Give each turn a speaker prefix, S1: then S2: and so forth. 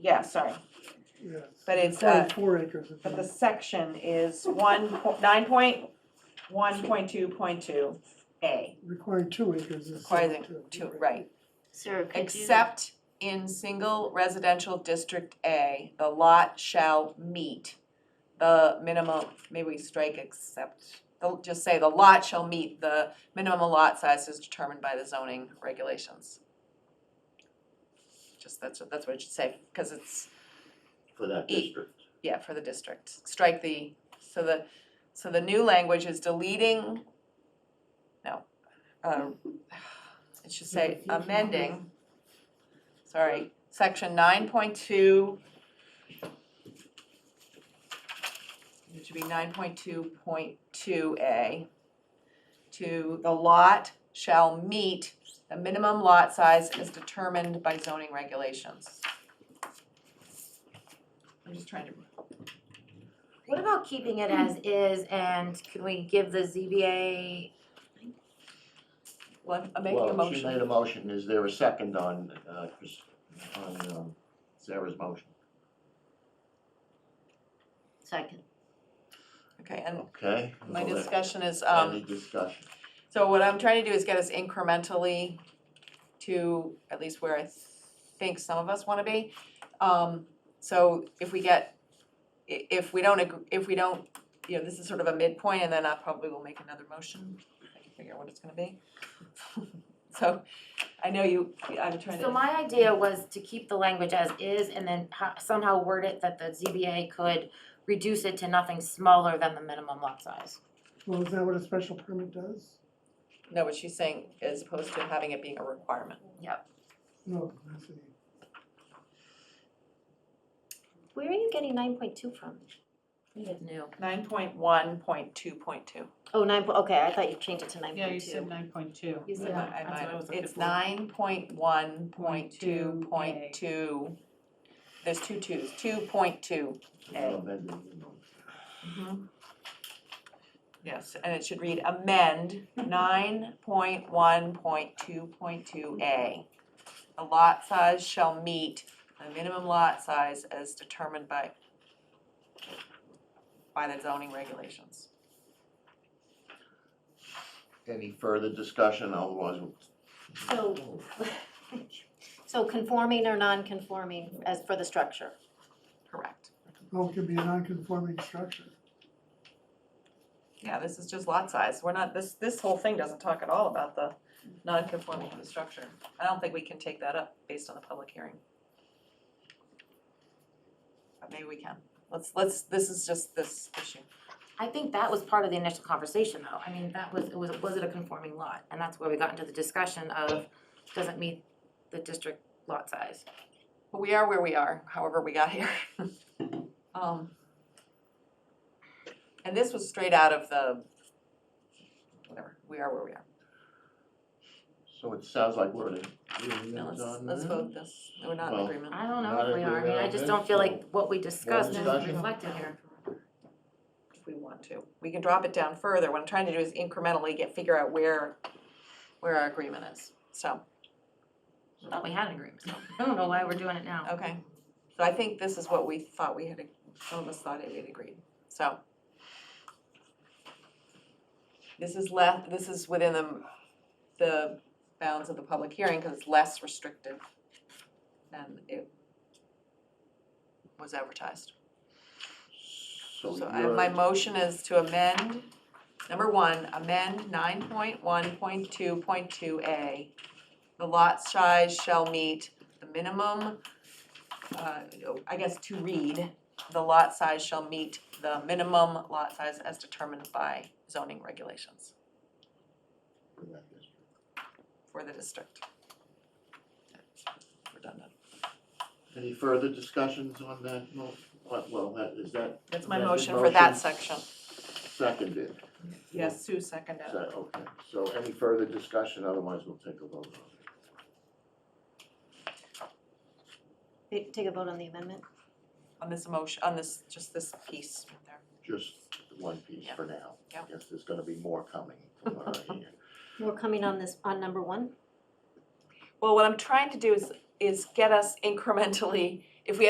S1: yeah, sorry,
S2: yeah.
S1: but it's, uh,
S2: Probably Four acres. is
S1: but the
S2: enough.
S1: section is one, po- nine point, one point two point two A.
S2: Requiring two acres is.
S1: Requiring
S2: two,
S1: two, right,
S3: Sarah, could you?
S1: except in single residential district A, the lot shall meet the minimum, maybe we strike except, the- just say the lot shall meet the minimum lot size is determined by the zoning regulations. Just, that's, what- that's what it should say, cause it's
S4: for that
S1: E.
S4: district.
S1: Yeah, for the district, strike the, so the, so the new language is deleting, no, um, it should say amending, sorry, section nine point two. It should be nine point two point two A. To the lot shall meet the minimum lot size as determined by zoning regulations. I'm just trying to
S3: What about keeping it as is and could we give the ZBA,
S1: Well, I'm making a
S4: Well, she made a
S1: motion.
S4: motion, is there a second on, uh, Chris, on, um, Sarah's motion?
S3: second,
S1: Okay, and
S4: Okay?
S1: my
S4: Well,
S1: discussion is,
S4: Any
S1: um,
S4: discussion?
S1: so what I'm trying to do is get us incrementally to at least where I think some of us wanna be. Um, so if we get, i- if we don't, ag- if we don't, you know, this is sort of a midpoint and then I probably will make another motion. I can figure out what it's gonna be. So I know you, I'm trying
S3: so
S1: to,
S3: my idea was to keep the language as is and then ho- somehow word it that the ZBA could reduce it to nothing smaller than the minimum lot size.
S2: Well, is that what a special permit does?
S1: no, what she's saying as opposed to having it being a requirement.
S2: No, that's a.
S3: Where are you getting nine point two from? New.
S1: Nine point one, point two, point two.
S3: Oh, nine, po- okay, I thought you changed it to nine point two.
S5: Yeah, you said nine point two.
S3: You said
S1: I
S3: that.
S1: might- I
S5: That's what I
S1: might-
S5: was looking
S1: it's
S5: for.
S1: nine point one, point
S5: Point
S1: two,
S5: two,
S1: point
S5: A.
S1: two. There's two twos, two point two.
S4: We'll amend it, you know.
S5: Mm-hmm.
S1: Yes, and it should read amend nine point one, point two, point two A. The lot size shall meet the minimum lot size as determined by by the zoning regulations.
S4: Any further discussion, otherwise we'll
S6: So, so conforming or non-conforming as for the structure?
S1: Correct.
S2: Well, it could be a non-conforming structure.
S1: Yeah, this is just lot size. We're not, this, this whole thing doesn't talk at all about the non-conforming of the structure. I don't think we can take that up based on the public hearing. But maybe we can. Let's, let's, this is just this issue.
S3: I think that was part of the initial conversation though, I mean, that was, it was, was it a conforming lot? And that's where we got into the discussion of, does it meet the district lot size?
S1: But we are where we are, however we got here. Um, And this was straight out of the, whatever, we are where we are.
S4: So it sounds like we're in
S1: Now
S4: agreement
S1: let's,
S4: on that?
S1: let's vote this. We're not in
S4: Well,
S1: agreement.
S3: I don't know
S4: Not
S3: if we are, I
S4: agree
S3: mean, I
S4: on
S3: just
S4: this,
S3: don't feel like
S4: so-
S3: what we discussed is
S4: discussion?
S3: reflected here.
S1: if we want to. We can drop it down further. What I'm trying to do is incrementally get, figure out where, where our agreement is. So,
S3: I Thought we had an agreement, I don't know why we're doing it now.
S1: okay. So I think this is what we thought we had, some of us thought we had agreed. So. This is left, this is within the, the bounds of the public hearing because it's less restrictive than it was advertised.
S4: So
S1: So I, my
S4: you're,
S1: motion is to amend, number one, amend nine point one point two point two A. The lot size shall meet the minimum, uh, I guess to read, the lot size shall meet the minimum lot size as determined by zoning regulations for the district. Redundant.
S4: any further discussions on that? No, what, well, that, is that
S1: That's my
S4: amended
S1: motion for that section.
S4: Seconded,
S1: Yes, Sue seconded.
S4: so, okay, so any further discussion, otherwise we'll take a vote on it.
S6: Take take a vote on the amendment?
S1: On this motion, on this, just this piece right there.
S4: just one piece
S1: Yeah.
S4: for now.
S1: Yeah.
S4: I guess there's gonna be more coming from what I hear.
S6: We're coming on this, on number one?
S1: Well, what I'm trying to do is, is get us incrementally, if we